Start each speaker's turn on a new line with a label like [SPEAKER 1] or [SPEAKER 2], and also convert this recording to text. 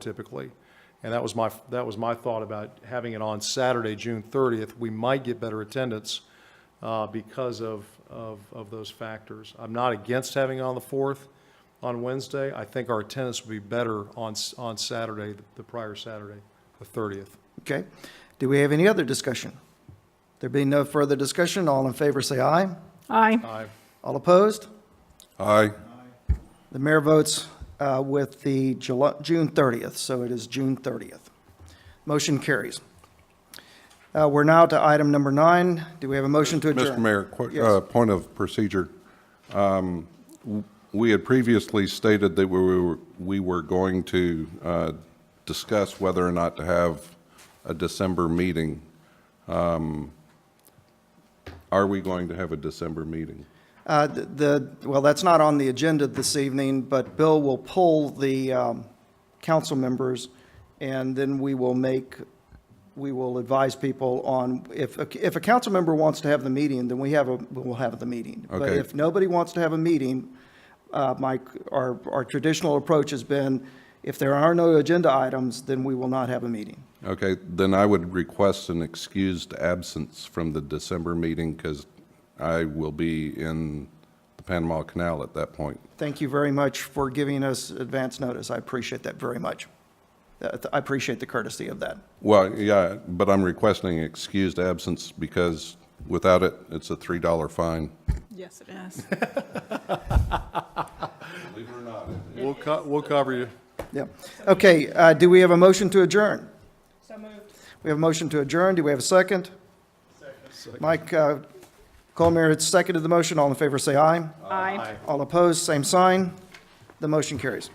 [SPEAKER 1] typically. And that was my, that was my thought about having it on Saturday, June 30th. We might get better attendance uh, because of, of, of those factors. I'm not against having it on the 4th on Wednesday. I think our attendance would be better on, s- on Saturday, the prior Saturday, the 30th.
[SPEAKER 2] Okay. Do we have any other discussion? There being no further discussion, all in favor say aye.
[SPEAKER 3] Aye.
[SPEAKER 1] Aye.
[SPEAKER 2] All opposed?
[SPEAKER 4] Aye.
[SPEAKER 2] The mayor votes uh, with the July, June 30th, so it is June 30th. Motion carries. Uh, We're now to item number nine. Do we have a motion to adjourn?
[SPEAKER 4] Mr. Mayor, qu-
[SPEAKER 2] Yes.
[SPEAKER 4] uh, point of procedure. Um, w- We had previously stated that we were, we were going to uh, discuss whether or not to have a December meeting. Um, Are we going to have a December meeting?
[SPEAKER 2] Uh, th- The, well, that's not on the agenda this evening, but Bill will pull the um, council members, and then we will make, we will advise people on, if, a- if a council member wants to have the meeting, then we have a, we'll have the meeting. But
[SPEAKER 4] Okay.
[SPEAKER 2] if nobody wants to have a meeting, uh, my, our, our traditional approach has been, if there are no agenda items, then we will not have a meeting.
[SPEAKER 4] Okay, then I would request an excused absence from the December meeting because I will be in the Panama Canal at that point.
[SPEAKER 2] Thank you very much for giving us advance notice. I appreciate that very much. Uh, I appreciate the courtesy of that.
[SPEAKER 4] Well, yeah, but I'm requesting excused absence because without it, it's a $3 fine.
[SPEAKER 3] Yes, it is.
[SPEAKER 4] Believe it or not.
[SPEAKER 1] We'll co, we'll cover you.
[SPEAKER 2] Yeah. Okay, uh, do we have a motion to adjourn? So moved. We have a motion to adjourn. Do we have a second? Second. Mike uh, Colmeyer has seconded the motion. All in favor, say aye.
[SPEAKER 3] Aye.
[SPEAKER 2] All opposed, same sign. The motion carries.